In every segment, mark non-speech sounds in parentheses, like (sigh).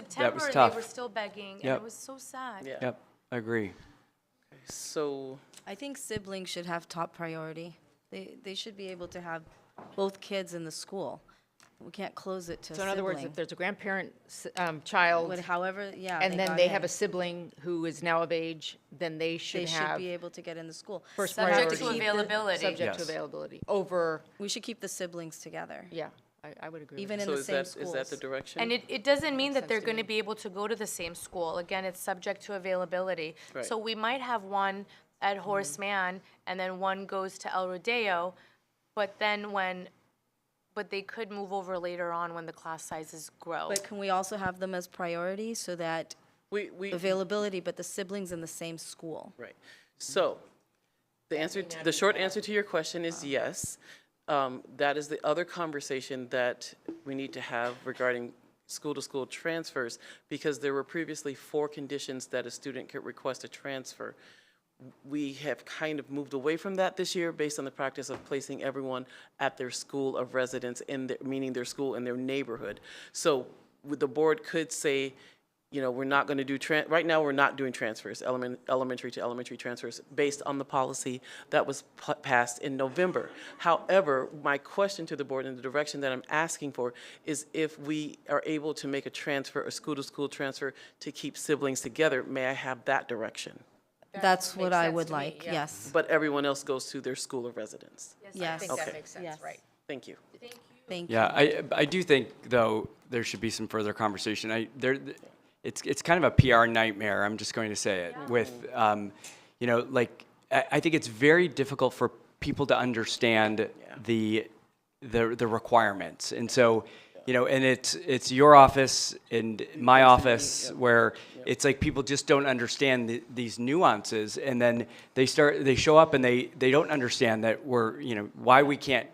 September, and tough. they were still begging, and Yep. it was so sad. Yeah. Yep, I agree. So, I think siblings should have top priority. They, they should be able to have both kids in the school. We can't close it to a So in other words, sibling. if there's a grandparent, s- um, child, But however, yeah. and then got they in, have a sibling who is now of age, then they They should should have be able to get in the school. first priority. Subject to availability. Subject to Yes. availability, over, We should keep the siblings together, yeah, I, I would agree with even in so the is same that, schools. is that the direction? And it, it doesn't mean that they're gonna be able to go to the same school. Again, it's subject to availability. So we might have one at Horace Mann, and then one goes to El Rodeo, but then when, but they could move over later on when the class sizes grow. But can we also have them as priority so that We, we, availability, but the siblings in the same school? right. So, the answer, to- the short answer to your question is yes. Um, That is the other conversation that we need to have regarding school-to-school transfers, because there were previously four conditions that a student could request a transfer. we have kind of moved away from that this year based on the practice of placing everyone at their school of residence in their, meaning their school in their neighborhood. So with the board could say, you know, we're not going to do, tran- right now, we're not doing transfers, element, elementary to elementary transfers, based on the policy that was p- passed in November. However, my question to the board and the direction that I'm asking for is if we are able to make a transfer, a school-to-school transfer to keep siblings together, may I have that direction? That's what I would like, yes. But everyone else goes to their school of residence. Yes. Okay. makes Yes. sense, right. Thank you. Thank you. Yeah, I, I do think, though, there should be some further conversation. I, there, it's, it's kind of a PR nightmare, I'm just going to say it, with, um, you know, like, I, I think it's very difficult for people to understand the, the, the requirements. And so, you know, and it's, it's your office and my office where it's like people just don't understand the, these nuances. And then they start, they show up and they, they don't understand that we're, you know, why we can't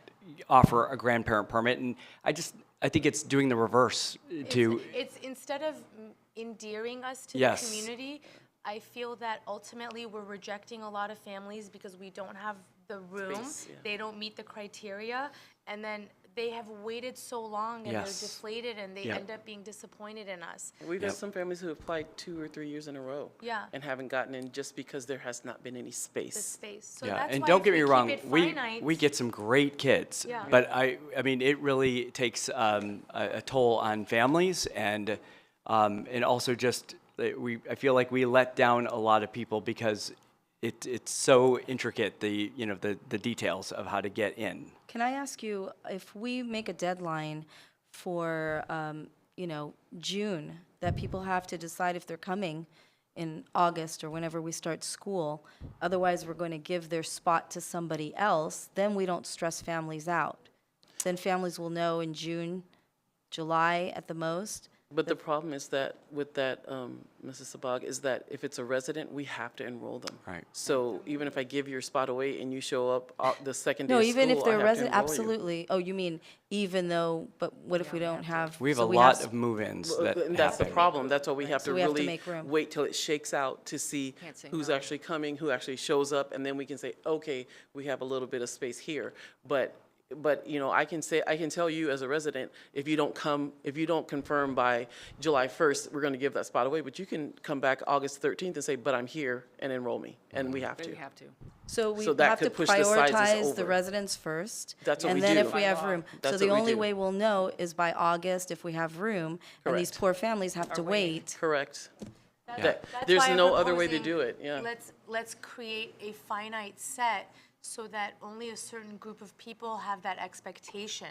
offer a grandparent permit, and I just, I think it's doing the reverse to, It's instead of m- endearing us to the Yes. community, I feel that ultimately we're rejecting a lot of families because we don't have the room. Space, yeah. They don't meet the criteria, and then they have waited so long and Yes. they're deflated and they Yeah. end up being disappointed in us. We've had some families who applied two or three years in a row. Yeah. And haven't gotten in just because there has not been any The space. space. So yeah. that's And why don't if get we me keep wrong, it we, finite- we get some great kids. Yeah. But I, I mean, it really takes um, a, a toll on families and, um, and also just, that we, I feel like we let down a lot of people because it, it's so intricate, the, you know, the, the details of how to get in. Can I ask you, if we make a deadline for, um, you know, June, that people have to decide if they're coming in August or whenever we start school, otherwise we're going to give their spot to somebody else, then we don't stress families out. Then families will know in June, July at the most. But the problem is that with that, um, Mrs. Sabag, is that if it's a resident, we have to enroll them. Right. So even if I give your spot away and you show up uh, the second day No, of even if school, I they're have to resident, enroll you. absolutely. Oh, you mean even though, but what if we don't have? We have so a lot s- of move-ins that And that's the happen. problem. That's why we have to we have to really make room. wait till it shakes out to see who's actually coming, who actually shows up, and then we can say, okay, we have a little bit of space here. But, but, you know, I can say, I can tell you as a resident, if you don't come, if you don't confirm by July first, we're gonna give that spot away, but you can come back August thirteenth and say, but I'm here, and enroll me, and we have to. You have to. So we So that have to could push the sizes prioritize the over. residents first. That's what we And then do. if we have room. So That's the what we only do. way we'll know is by August if we have room. And these Correct. poor families have to wait. Correct. That- That's There's why I'm no other way to proposing do it, yeah. Let's, let's create a finite set so that only a certain group of people have that expectation.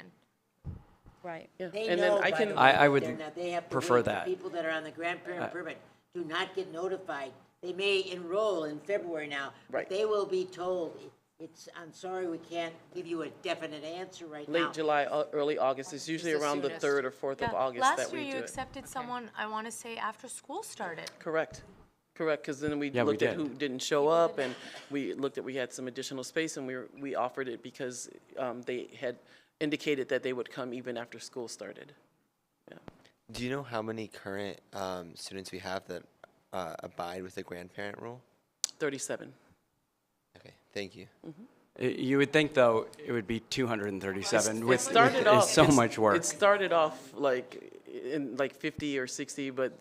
Right. Yeah. They And then know, I by can- the way, I- I that would they're not- they have to prefer wait. The that. People that are on the Uh, grandparent permit do not get notified. They may enroll in February now, Right. but they will be told, it's, I'm sorry, we can't give you a definite answer right now. Late July, au- early August, it's usually around the soonest. third or fourth of Yeah, August that Last we year, do you it. accepted someone, I want to say, after school started. Correct, correct, because then we Yeah, we looked did. at who didn't show up, and we looked at, we had some additional space, and we, were- we offered it because um, they had indicated that they would come even after school started. Do you know how many current um, students we have that uh, abide with the grandparent rule? Thirty-seven. Okay, thank you. Uh, You would think, though, it would be 237 with, Started with (laughs) off. so it's- much work. It started off like, in like 50 or 60, but